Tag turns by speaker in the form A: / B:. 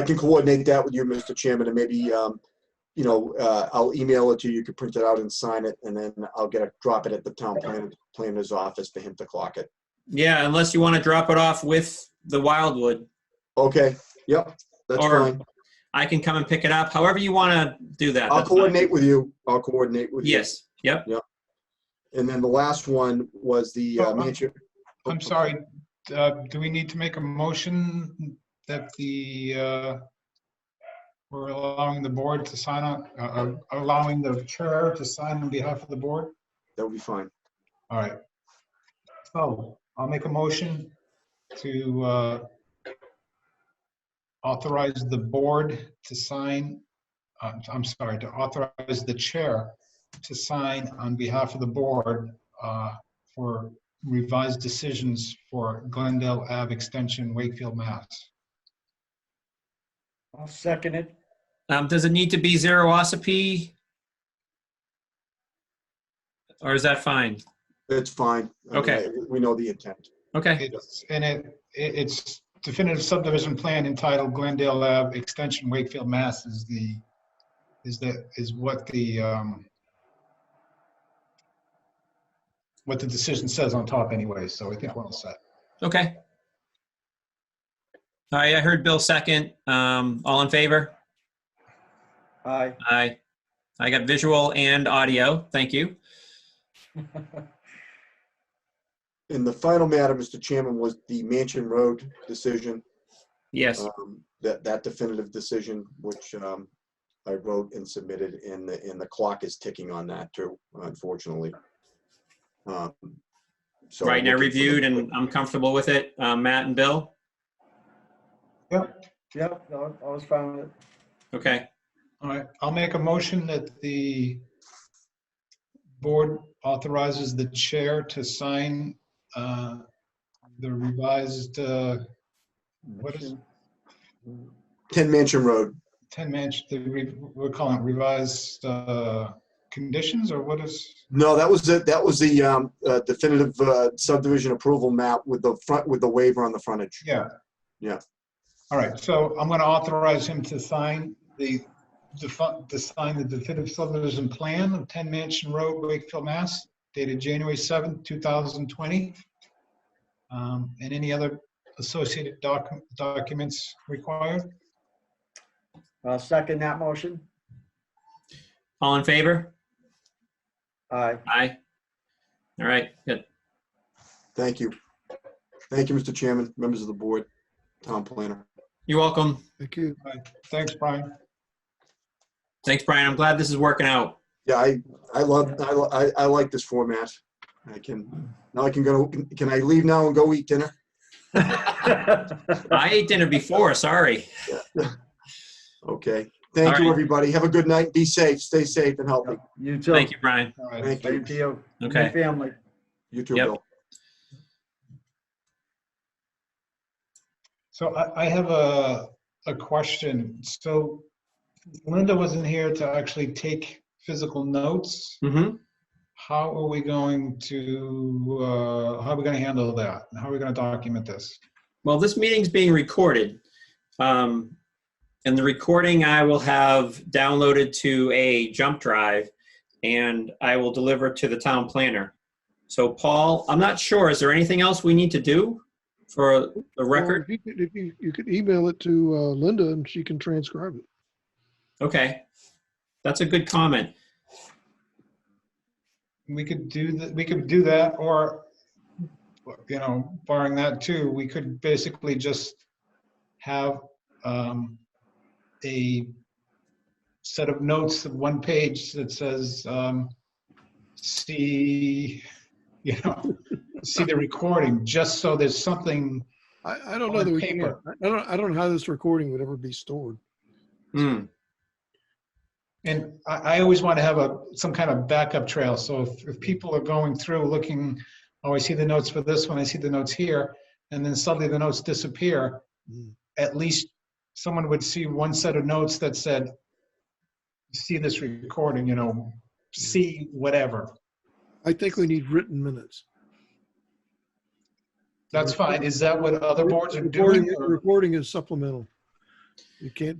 A: I can coordinate that with you, Mr. Chairman, and maybe, um, you know, uh, I'll email it to you. You can print it out and sign it, and then I'll get a, drop it at the town planner, planner's office for him to clock it.
B: Yeah, unless you want to drop it off with the Wildwood.
A: Okay, yep, that's
B: Or-
A: fine.
B: I can come and pick it up, however you want to do that.
A: I'll
B: that's fine.
A: coordinate with you. I'll coordinate with you.
B: Yes, yep.
A: And then the last one was the
C: Oh,
A: uh,
C: I'm-
A: Manchester.
C: I'm sorry, uh, do we need to make a motion that the, uh, we're allowing the board to sign on, uh, uh, allowing the chair to sign on behalf of the board?
A: That would be fine.
C: All right. So I'll make a motion to uh, authorize the board to sign, uh, I'm sorry, to authorize the chair to sign on behalf of the board uh, for revised decisions for Glendale Ave Extension, Wakefield, Mass.
D: I'll second it.
B: Um, does it need to be Zerosopy? Or is that fine?
A: That's fine. I mean,
B: Okay.
A: I- We know the intent.
B: Okay,
C: It's- And it, it- it's definitive subdivision plan entitled Glendale Ave Extension, Wakefield, Mass. is the, is the, is what the, um, what the decision says on top anyway, so I think we're all set.
B: okay. All right, I heard Bill second. Um, all in favor?
D: Aye.
B: Aye. I got visual and audio. Thank you.
A: And the final matter, Mr. Chairman, was the Mansion Road decision.
B: Yes,
A: um, That, that definitive decision, which um, I wrote and submitted, and the, and the clock is ticking on that too, unfortunately. Um, so
B: right, and I
A: looking for the-
B: reviewed and I'm comfortable with it. Um, Matt and Bill?
D: Yep, no, I was fine with it.
B: Okay,
C: All right, I'll make a motion that the board authorizes the chair to sign uh, the revised uh, What is-
A: Ten Mansion Road,
C: 10 mansion, the re- we're calling it revised uh, conditions, or what is?
A: no, that was, the that was the um, uh, definitive uh, subdivision approval map with the front, with the waiver on the frontage.
C: Yeah.
A: Yeah.
C: All right, so I'm going to authorize him to sign the, defi- to sign the definitive subdivision plan of 10 Mansion Road, Wakefield, Mass, dated January 7th, 2020. Um, And any other associated docu- documents required?
D: I'll Uh, second that motion.
B: all in favor?
D: Aye.
B: Aye. All right, good.
A: Thank you. Thank you, Mr. Chairman, members of the board, town planner.
B: You're welcome.
E: Thank you.
C: All right, Thanks, Brian.
B: Thanks, Brian. I'm glad this is working out.
A: Yeah, I, I love, I, lo- I, I like this format. I can, now I can go, can I leave now and go eat dinner?
B: I ate dinner before, sorry.
A: Okay.
B: All
A: Thank
B: right.
A: you, everybody. Have a good night. Be safe. Stay safe and healthy.
D: You too.
B: Thank you, Brian.
C: All right.
A: Thank you.
D: Thank you. and your
B: Okay.
D: Family.
A: You too,
B: Yep.
A: Bill.
C: So I, I have a, a question. So Linda wasn't here to actually take physical notes.
B: Mm-hmm.
C: How are we going to, uh, how are we going to handle that? How are we going to document this?
B: Well, this meeting's being recorded. Um, and the recording I will have downloaded to a jump drive and I will deliver to the town planner. So Paul, I'm not sure, is there anything else we need to do for the
E: Well,
B: record?
E: If you could- if you, you could email it to uh, Linda and she can transcribe it.
B: Okay. That's a good comment.
C: We could do that, we could do that, or, you know, barring that too, we could basically just have, um, a set of notes of one page that says, um, see, you know, see the recording, just so there's something,
E: Oh, I, I don't
C: On
E: know that we can.
C: paper.
E: I don't, I don't know how this recording would ever be stored.
B: Hmm.
C: and I, I always want to have a, some kind of backup trail, so if, if people are going through looking, oh, I see the notes for this one, I see the notes here, and then suddenly the notes disappear,
E: Mm.
C: at least someone would see one set of notes that said, see this recording, you know, see whatever.
E: I think we need written minutes.
C: That's fine, is that what other boards are
E: Recording-
C: doing? or-
E: Recording is supplemental. You can't